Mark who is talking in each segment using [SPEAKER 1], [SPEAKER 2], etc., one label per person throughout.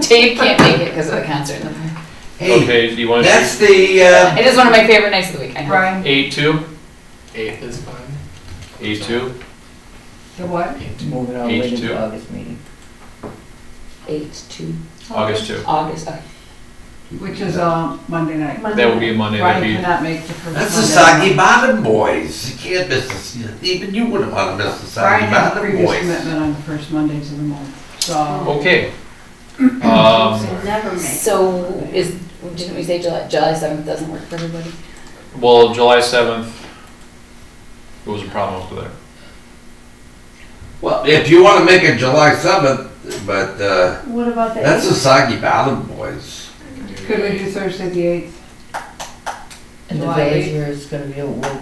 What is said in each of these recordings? [SPEAKER 1] Dave can't make it because of the concert in the park.
[SPEAKER 2] Hey,
[SPEAKER 3] Okay, do you want to
[SPEAKER 2] that's the, uh,
[SPEAKER 1] It is one of my favorite nights of the week, I know.
[SPEAKER 4] Brian,
[SPEAKER 3] eight two?
[SPEAKER 5] Eighth is fine.
[SPEAKER 3] Eight two?
[SPEAKER 4] the what?
[SPEAKER 6] Move it all the way to
[SPEAKER 3] H two.
[SPEAKER 6] the August meeting.
[SPEAKER 1] Eight to
[SPEAKER 4] Oh.
[SPEAKER 3] August two.
[SPEAKER 1] August, okay.
[SPEAKER 4] Which is, uh, Monday night.
[SPEAKER 3] That will be a Monday, that'd be,
[SPEAKER 4] Brian cannot make the first.
[SPEAKER 2] that's the
[SPEAKER 4] Monday
[SPEAKER 2] Soggy
[SPEAKER 4] night.
[SPEAKER 2] Bottom Boys. You can't miss this. Even you wouldn't want to miss the
[SPEAKER 4] Brian
[SPEAKER 2] Soggy
[SPEAKER 4] has a
[SPEAKER 2] Bottom
[SPEAKER 4] previous
[SPEAKER 2] Boys.
[SPEAKER 4] commitment on the first Mondays of the month, so.
[SPEAKER 3] okay. Um,
[SPEAKER 7] Never make.
[SPEAKER 1] So is, didn't we say July, July seventh doesn't work for everybody?
[SPEAKER 3] well, July seventh, it was a problem over there.
[SPEAKER 2] Well, if you want to make it July seventh, but, uh,
[SPEAKER 7] What about the
[SPEAKER 2] that's the
[SPEAKER 7] eighth?
[SPEAKER 2] Soggy Bottom Boys.
[SPEAKER 4] Could we do Thursday the eighth?
[SPEAKER 6] And the
[SPEAKER 4] July
[SPEAKER 6] village
[SPEAKER 4] eighth.
[SPEAKER 6] here is gonna be, a- we'll,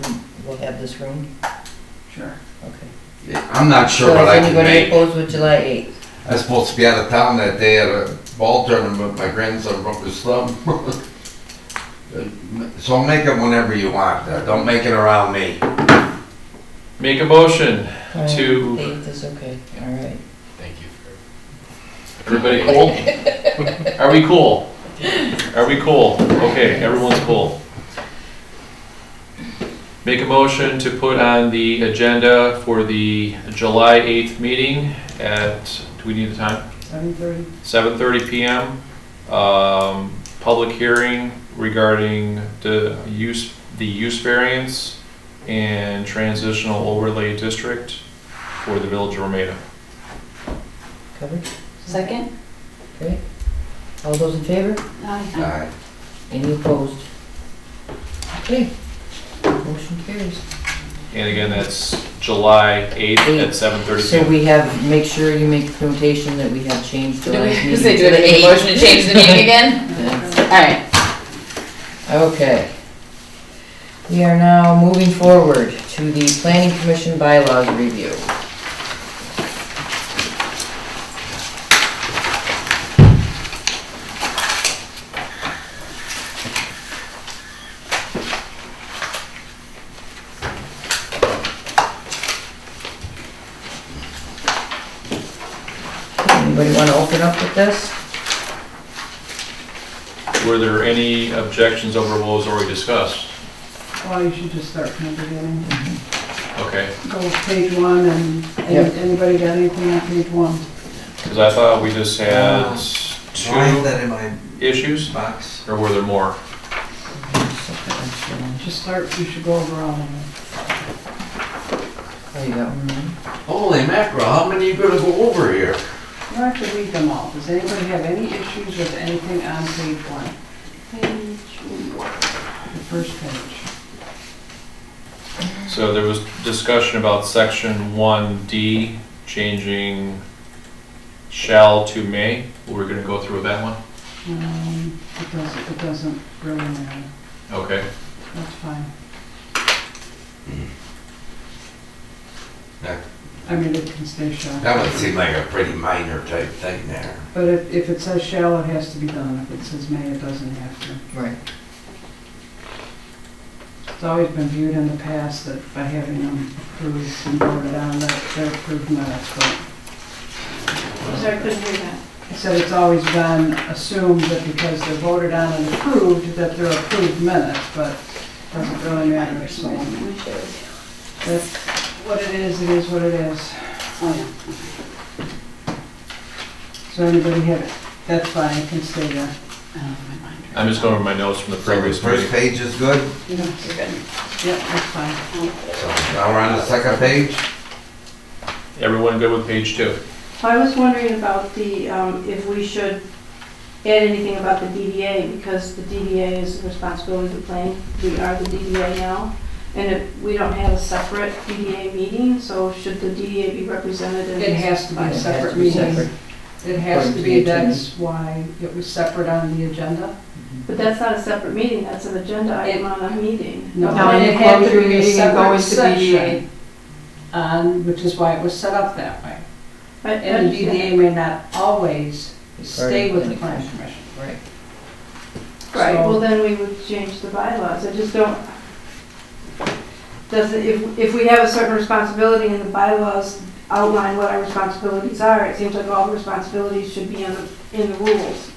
[SPEAKER 6] we'll have this room,
[SPEAKER 4] Sure.
[SPEAKER 6] okay.
[SPEAKER 2] I'm not sure
[SPEAKER 6] So
[SPEAKER 2] what
[SPEAKER 6] is
[SPEAKER 2] I can
[SPEAKER 6] anybody
[SPEAKER 2] make.
[SPEAKER 6] opposed with July eighth?
[SPEAKER 2] I was supposed to be out of town that day at a ball tournament. My grandson broke his thumb. So make it whenever you want. uh, Don't make it around me.
[SPEAKER 3] Make a motion, Two.
[SPEAKER 6] Eighth is okay, all right.
[SPEAKER 5] Thank you for.
[SPEAKER 3] everybody cool? Are we cool? Are we cool? Okay, everyone's cool. Make a motion to put on the agenda for the July eighth meeting at, do we need a time?
[SPEAKER 4] Seven thirty?
[SPEAKER 3] 7:30 PM, um, public hearing regarding the use, the use variance and transitional overlay district for the village of Romita.
[SPEAKER 6] Covered,
[SPEAKER 1] Second?
[SPEAKER 6] okay. All those in favor?
[SPEAKER 2] All right.
[SPEAKER 6] Any opposed? Okay, motion carries.
[SPEAKER 3] And again, that's July 8th at 7:30
[SPEAKER 6] So
[SPEAKER 3] PM.
[SPEAKER 6] we have, make sure you make the notation that we have changed
[SPEAKER 1] Do
[SPEAKER 6] July
[SPEAKER 1] we,
[SPEAKER 6] meeting
[SPEAKER 1] say,
[SPEAKER 6] to
[SPEAKER 1] do we
[SPEAKER 6] the
[SPEAKER 1] make a
[SPEAKER 6] eighth.
[SPEAKER 1] motion to change the meeting again? Alright,
[SPEAKER 6] Okay. We are now moving forward to the planning commission bylaws review. Anybody wanna open up with this?
[SPEAKER 3] Were there any objections over what was already discussed?
[SPEAKER 4] Well, you should just start from the beginning.
[SPEAKER 3] Okay,
[SPEAKER 4] Go with page one and,
[SPEAKER 6] Yep.
[SPEAKER 4] and anybody got anything on page one?
[SPEAKER 3] because I thought we just had
[SPEAKER 2] Do I have
[SPEAKER 3] two
[SPEAKER 2] that in my
[SPEAKER 3] issues,
[SPEAKER 2] box?
[SPEAKER 3] or were there more?
[SPEAKER 4] Just start, you should go over all of them.
[SPEAKER 6] There you go.
[SPEAKER 4] Mm-hmm.
[SPEAKER 2] Holy mackerel, how many you gonna go over here?
[SPEAKER 4] You don't have to read them all. Does anybody have any issues with anything on page one, the first page?
[SPEAKER 3] So there was discussion about section one D, changing shall to may. We're gonna go through that one?
[SPEAKER 4] Um, It doesn't, it doesn't really matter.
[SPEAKER 3] Okay.
[SPEAKER 4] That's fine.
[SPEAKER 2] That-
[SPEAKER 4] I mean, it can stay shall.
[SPEAKER 2] That would seem like a pretty minor type thing there.
[SPEAKER 4] But if, if it says shall, it has to be done. If it says may, it doesn't have to.
[SPEAKER 6] Right.
[SPEAKER 4] It's always been viewed in the past that by having them approved and voted on, that they're approved minutes, but
[SPEAKER 7] Sorry, I couldn't hear that.
[SPEAKER 4] it said it's always been assumed that because they're voted on and approved, that they're approved minutes, but doesn't really matter, so that's what it is, it is what it is.
[SPEAKER 1] Oh,
[SPEAKER 4] So anybody have it? That's fine, it can stay there.
[SPEAKER 1] yeah. Oh, my mind.
[SPEAKER 3] I'm just going over my notes from the
[SPEAKER 2] So the
[SPEAKER 3] previous
[SPEAKER 2] first
[SPEAKER 3] meeting.
[SPEAKER 2] page is good,
[SPEAKER 1] No, you're good.
[SPEAKER 4] Yep, that's fine.
[SPEAKER 2] so now we're on the second page?
[SPEAKER 3] Everyone good with page two?
[SPEAKER 7] I was wondering about the, um, if we should add anything about the DDA, because the DDA is the responsibility of the planning, we are the DDA now, and if we don't have a separate DDA meeting, so should the DDA be represented in?
[SPEAKER 4] It has to be
[SPEAKER 6] It has to
[SPEAKER 4] separate
[SPEAKER 6] be
[SPEAKER 4] meetings.
[SPEAKER 6] separate.
[SPEAKER 4] It has to
[SPEAKER 6] According to
[SPEAKER 4] be,
[SPEAKER 6] the attorney.
[SPEAKER 4] that's why it was separate on the agenda.
[SPEAKER 7] But that's not a separate meeting, that's an agenda item on a meeting.
[SPEAKER 4] No,
[SPEAKER 7] But
[SPEAKER 4] it
[SPEAKER 7] it
[SPEAKER 4] had
[SPEAKER 7] had
[SPEAKER 4] to be a
[SPEAKER 1] meeting and go
[SPEAKER 4] separate
[SPEAKER 1] into
[SPEAKER 4] session. On, which is why it was set up that way.
[SPEAKER 7] I- I
[SPEAKER 4] And the
[SPEAKER 7] understand.
[SPEAKER 4] DDA may not always stay with the planning
[SPEAKER 6] Planning
[SPEAKER 4] commission.
[SPEAKER 6] Right.
[SPEAKER 7] Right,
[SPEAKER 4] So-
[SPEAKER 7] well, then we would change the bylaws, I just don't, does, it- if, if we have a certain responsibility in the bylaws, outline what our responsibilities are. It seems like all the responsibilities should be in the, in the rules.